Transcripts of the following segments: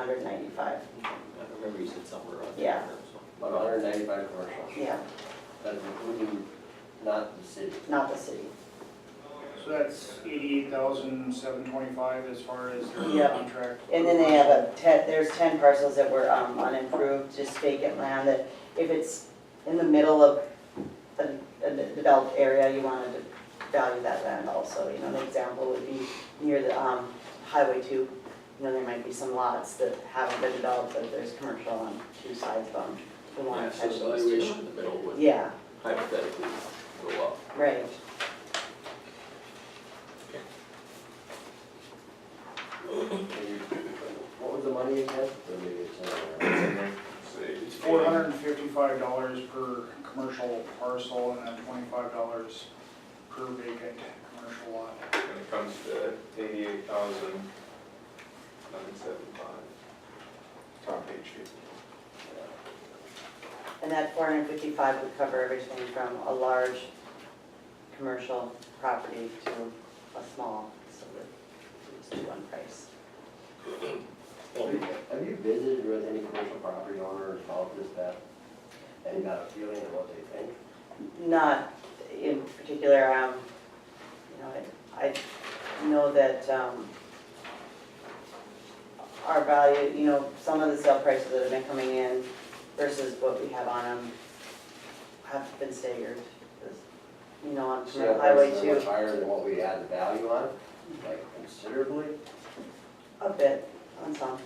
hundred and ninety-five, I remember you said somewhere around there. Yeah. About hundred ninety-five commercial, yeah, that's including not the city. not the city. So that's eighty-eight thousand, seven twenty-five as far as their Yeah. contract. And then they have a ten, there's ten parcels that were um, unimproved, just vacant land that if it's in the middle of a, a developed area, you wanted to value that land also, you know, an example would be near the, um, Highway two. You know, there might be some lots that haven't been developed, but there's commercial on two sides of them, you Yeah, want to so catch the those too. valuation in the middle would Yeah, hypothetically go up. right, What was the money again? Or maybe it's not around. It's four hundred and fifty-five dollars per commercial parcel and then twenty-five dollars per vacant commercial lot. When it comes to eighty-eight thousand nine seventy-five. Top page here. and that four hundred and fifty-five would cover everything from a large commercial property to a small, so that it's just one price. Have you- Have you visited with any commercial property owner about this, that, and got a feeling of what they think? Not in particular, um, you know, I, I know that, um, our value, you know, some of the sale prices that have been coming in versus what we have on them have been staggered. You know, on So that Highway price is two. Much higher than what we add the value on, like considerably. A bit, on some.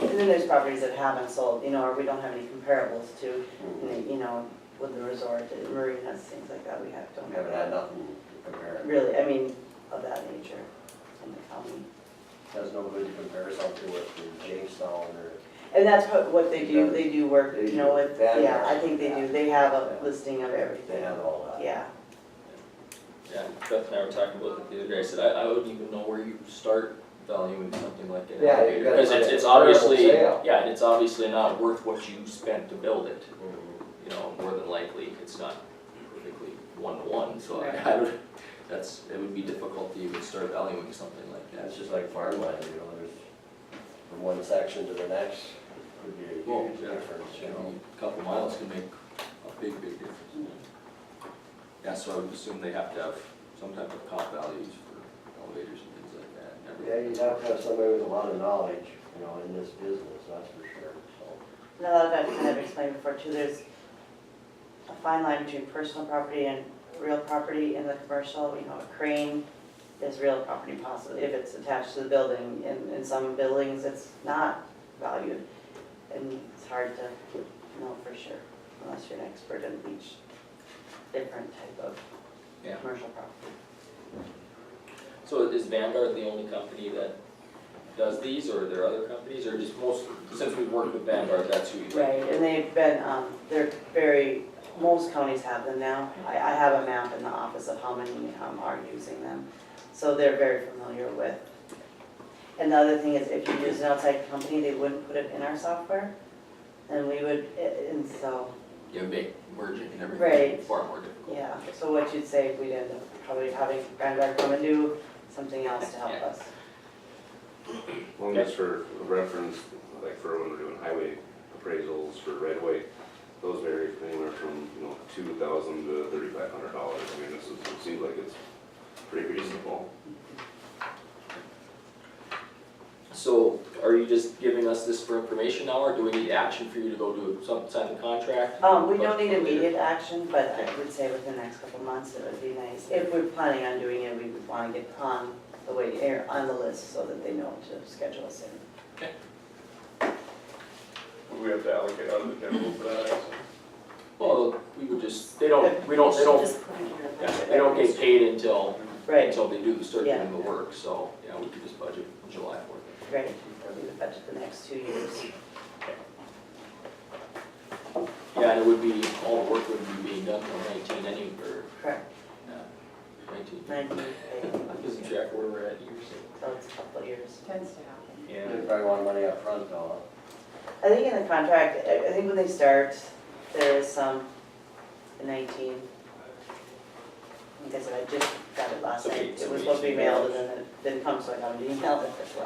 And then there's properties that haven't sold, you know, or we don't have any comparables to, and they- you know, with the resort, the marinas, things like that, we have, don't We have haven't had that. nothing to compare. it. Really, I mean, of that nature in the county. There's no good comparison to what the Jamestown or And that's what, what they do, they do work, They you know, do. with, That- yeah, I think they do, they have a Yeah. listing of they everything, have all that. yeah. Yeah, Beth and I were talking about it the other day, I said, I, I wouldn't even know where you start valuing something like an Yeah, you elevator. gotta Because look it's, at it's comparable obviously, sale. yeah, and it's obviously not worth what you spent to build it. Mhm. You know, more than likely, it's not perfectly one-to-one, so I, I would, that's, it would be difficult to even start valuing something like Yeah, that. It's just like farmland, you know, there's, from one section to the next could be a Well, huge yeah. difference, you know. A Couple miles can make a big, big difference. Yeah, so I would assume they have to have some type of comp values for elevators and things like that. and Yeah, everything. you'd have to have somebody with a lot of knowledge, you know, in this business, that's for sure, so. And a lot of that, kind of explained before too, there's a fine line between personal property and real property in the commercial, you know, a crane is real property possibly, if it's attached to the building, in, in some buildings, it's not valued. And it's hard to know for sure, unless you're an expert in each different type of Yeah. commercial property. So is Vanguard the only company that does these, or are there other companies, or just most, since we've worked with Vanguard, that's who you Right, and they've been, um, they're very, most counties have them now. I, I have a map in the office of how many, um, are using them. So they're very familiar with. And the other thing is if you use an outside company, they wouldn't put it in our software. And we would, a- and so, You make merging and everything Right. far more difficult. yeah, so what you'd say, we'd end up probably having Vanguard come and do something else to help Yeah. us. Well, just for reference, like for when we're doing highway appraisals for right of way, those vary from anywhere from, you know, two thousand to thirty-five hundred dollars. I mean, this is, it seems like it's pretty reasonable. So are you just giving us this for information now, or do we need action for you to go do some, sign the contract? Um, we don't need immediate action, but I would say within the next couple of months, it would be nice. If we're planning on doing it, we would wanna get on the wait, or on the list so that they know to schedule us in. Would we have to allocate out of the general for that? actually? Well, we would just, they don't, we don't, they don't, Just put it in your yeah, budget. they don't get paid until, Right, until they do the search Yeah. and the work, so, yeah, we could just budget July for it. right, it'll be the budget the next two years. Yeah, and it would be, all the work would be being done till nineteen anyway, or, Correct, yeah, nineteen. nineteen, okay, I'm losing track where we're at years. so it's a couple of years. Tends to happen. They probably want money up front, though. I think in the contract, I, I think when they start, there is some in nineteen. Like I said, I just got it last Okay, night, so it was we supposed to be emailed. mailed and then it didn't come, so I got an email that this was.